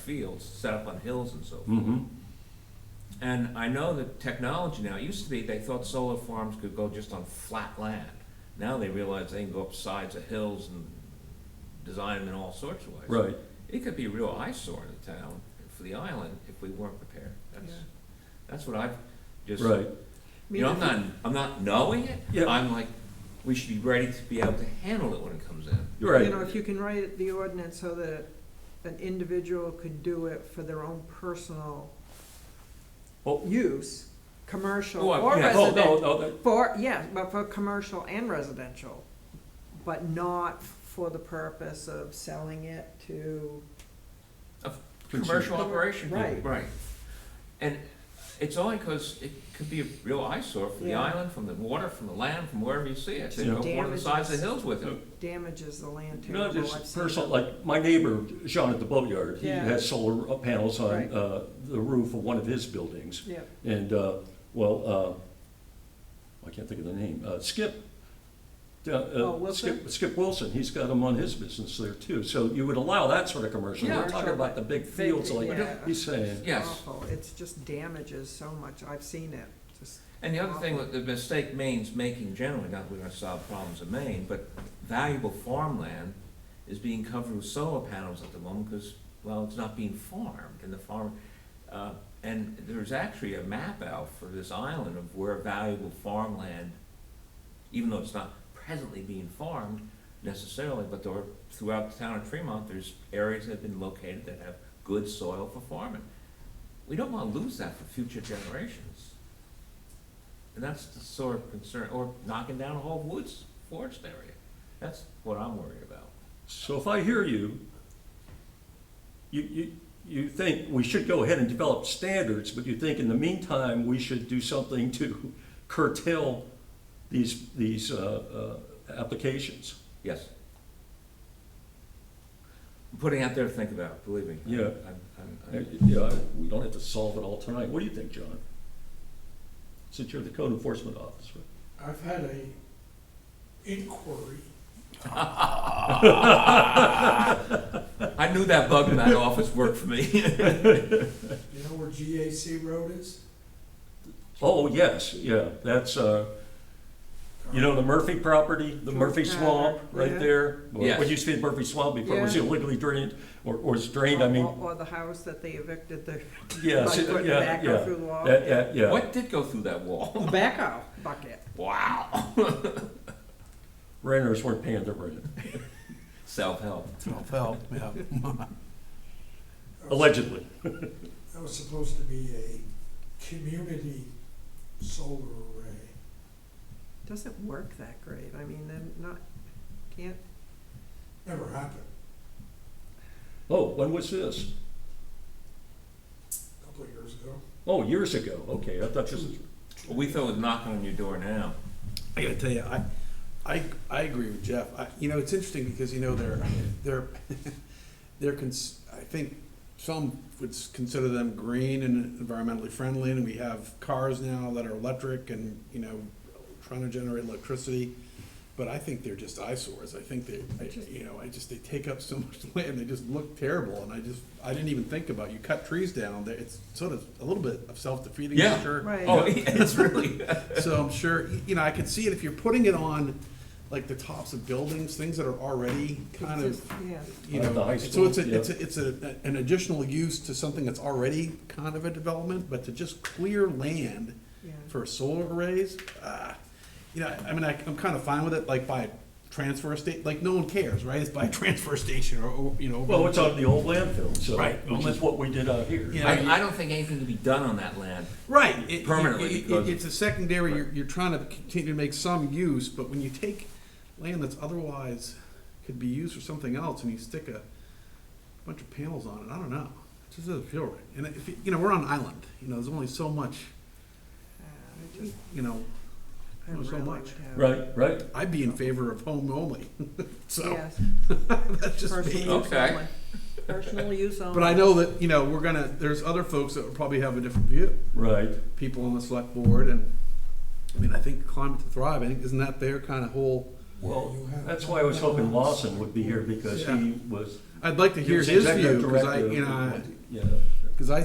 fields set up on hills and so forth. Mm-hmm. And I know that technology now, it used to be they thought solar farms could go just on flat land. Now they realize they can go up sides of hills and design them in all sorts of ways. Right. It could be a real eyesore in the town, for the island, if we weren't prepared. That's, Yeah. that's what I've just, Right. you know, I'm not, I'm not knowing Yeah. it. I'm like, we should be ready to be able to handle it when it comes in. You're right. You know, if you can write the ordinance so that an individual could do it for their own personal Oh. use, commercial Oh, I- or yeah. Oh, no, residential. no, that- For, yeah, but for commercial and residential, but not for the purpose of selling it to, Commercial Consumer. operation. Right. Right. And it's only because it could be a real eyesore for the Yeah. island, from the water, from the land, from wherever you see it. They Yeah. go one of the sides of Damages. the hills with it. No. damages the land you know, terrible. I've just seen personal, it. like my neighbor, John at the boatyard, he Yeah. has solar uh, panels on Right. uh, the roof of one of his buildings. Yeah, And, uh, well, uh, I can't think of the name, uh, Skip. uh, uh, Oh, Wilson? Skip- Skip Wilson, he's got them on his business there too. So you would allow that sort of commercial. Yeah. We're talking about the big fields like Yeah. he's saying. Yes. awful. It's just damages so much. I've seen it, just, And the other thing, that the mistake Maine's making generally, not that we're gonna solve problems in Maine, but valuable farmland is being covered with solar panels at the moment, because, well, it's not being farmed, and the farm, uh, and there's actually a map out for this island of where valuable farmland, even though it's not presently being farmed necessarily, but there are, throughout the town of Tremont, there's areas that have been located that have good soil for farming. We don't wanna lose that for future generations. And that's the sort of concern, or knocking down a whole woods forest area. That's what I'm worried about. So if I hear you, you, you, you think we should go ahead and develop standards, but you think in the meantime, we should do something to curtail these, these, uh, uh, applications. Yes. I'm putting out there to think about, believe me. Yeah. I'm- I'm- Uh, I'm- Yeah, we don't have to solve it all tonight. What do you think, John? Since you're the code enforcement officer. I've had a inquiry. I knew that bug in that office worked for me. You know where GAC Road is? Oh, yes, yeah, that's, uh, you know, the Murphy property, the Murphy Swamp, right Yeah. there? Yes. What used to be Murphy Swamp before it was Yeah. illegally drained, or, or was drained, I mean, or, or the house that they evicted the, Yes, by yeah, putting yeah, backhoe yeah. through the wall. That- yeah, yeah. What did go through that wall? Tobacco bucket. Wow. Renters weren't paying their rent, Self-help. Well, yeah. That was- allegedly. That was supposed to be a community solar array. Doesn't work that great. I mean, then not, can't, Never happened. Oh, when was this? A couple of years ago. Oh, years ago. Okay, I thought this was, We thought it was knocking on your door now. I gotta tell you, I, I, I agree with Jeff. I, you know, it's interesting because, you know, they're, they're, they're cons, I think some would s- consider them green and environmentally friendly, and we have cars now that are electric and, you know, trying to generate electricity. But I think they're just eyesores. I think they, I- you know, I just, they take up so much land, they just look terrible, and I just, I didn't even think about, it. you cut trees down, there, it's sort of a little bit of self-defeating Yeah. nature. Right. Oh, it's really, So I'm sure, you know, I could see it if you're putting it on like the tops of buildings, things that are already kind of, exist- yeah. you Like the high know. So it's school, a, it's a, it's a, an additional use to something that's already kind of a development, but to just clear land Yeah. for solar arrays, ah. You know, I mean, I, I'm kind of fine with it, like by transfer state, like no one cares, right? It's by transfer station or- or, you know. well, it's out of the old landfill, so, Right. which is what we did out here. Yeah. I, I don't think anything can be done on that land. Right. it- Permanently, it- it- because- It's a secondary, you're, you're trying to continue to make some use, but when you take land that's otherwise could be used for something else and you stick a bunch of panels on it, I don't know. It just doesn't feel right. And if, you- you know, we're on an island, you know, there's only so much, Uh, I just- you know, I Not so really much. would have- Right, right. I'd be in favor of home only, so Yes, that's just personal me. use Okay. only. Personal use only. But I know that, you know, we're gonna, there's other folks that will probably have a different view. Right. people on the select board and, I mean, I think Climate to Thrive, I think, isn't that their kind of whole? Well, You have- that's why I was hoping Lawson would be here, because he was I'd like to hear He was his executive view, because I, director you know, of I- the- Yeah.